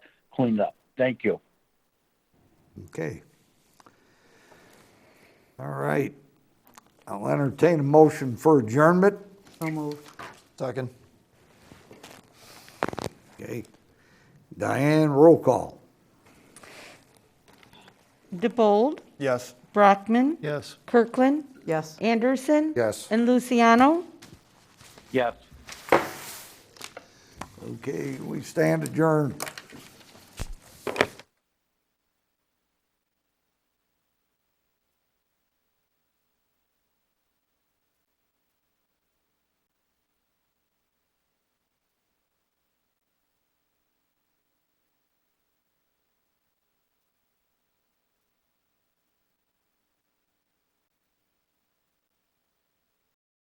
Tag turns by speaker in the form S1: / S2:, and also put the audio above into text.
S1: cleaned up. Thank you.
S2: Okay. All right. I'll entertain a motion for adjournment.
S3: So moved.
S4: Second.
S2: Okay. Diane, roll call.
S3: DeBold,
S4: Yes.
S3: Brockman,
S4: Yes.
S3: Kirkland,
S5: Yes.
S3: Anderson.
S4: Yes.
S3: And Luciano.
S1: Yes.
S2: Okay, we stand adjourned.